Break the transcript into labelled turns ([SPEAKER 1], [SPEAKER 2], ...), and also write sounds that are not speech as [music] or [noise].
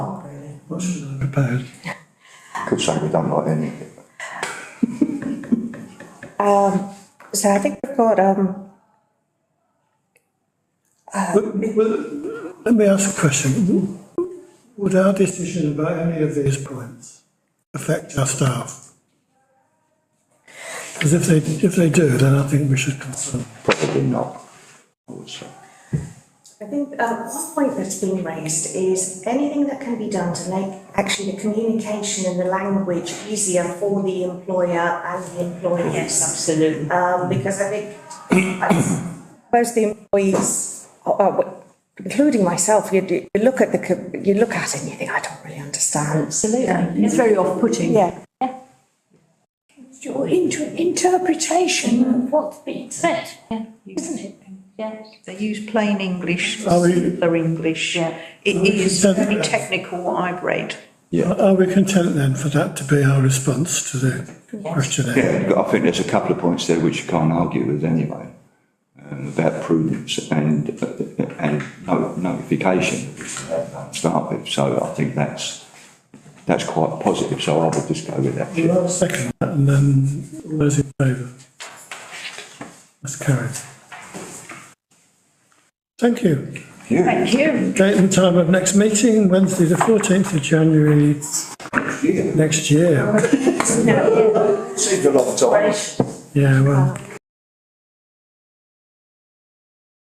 [SPEAKER 1] what's proposed?
[SPEAKER 2] Could say we don't like any of it.
[SPEAKER 3] So I think we've got, um,
[SPEAKER 1] Well, well, Let me ask a question. Would our decision about any of these points affect our staff? Because if they, if they do, then I think we should consult.
[SPEAKER 2] Probably not, I would say.
[SPEAKER 3] I think, uh, one point that's been raised is anything that can be done to make actually the communication and the language easier for the employer and the employees.
[SPEAKER 4] Absolutely.
[SPEAKER 3] Um, because I think, [coughs] I suppose the employees, uh, uh, w- including myself, you, you you look at the, co- you look at it and you think, I don't really understand.
[SPEAKER 4] Absolutely. It's very off-putting.
[SPEAKER 3] Yeah,
[SPEAKER 5] your inter- interpretation of what's being said, isn't it? Yes.
[SPEAKER 6] They use plain English,
[SPEAKER 1] Are we-
[SPEAKER 6] simpler English. It is
[SPEAKER 1] So-
[SPEAKER 6] very technical, I read.
[SPEAKER 1] Are are we content then for that to be our response to the questionnaire?
[SPEAKER 2] Yeah, but I think there's a couple of points there which you can't argue with anyway, um, about prudence and, uh, and no- notification to start with, so I think that's, that's quite positive, so I would just go with that.
[SPEAKER 1] Well, I'll Second, that and then all those in favour? That's carried. Thank you.
[SPEAKER 5] Thank you.
[SPEAKER 1] Date and time of next meeting, Wednesday, the fourteenth of January next year.
[SPEAKER 2] Seems a long time.
[SPEAKER 1] Yeah, well,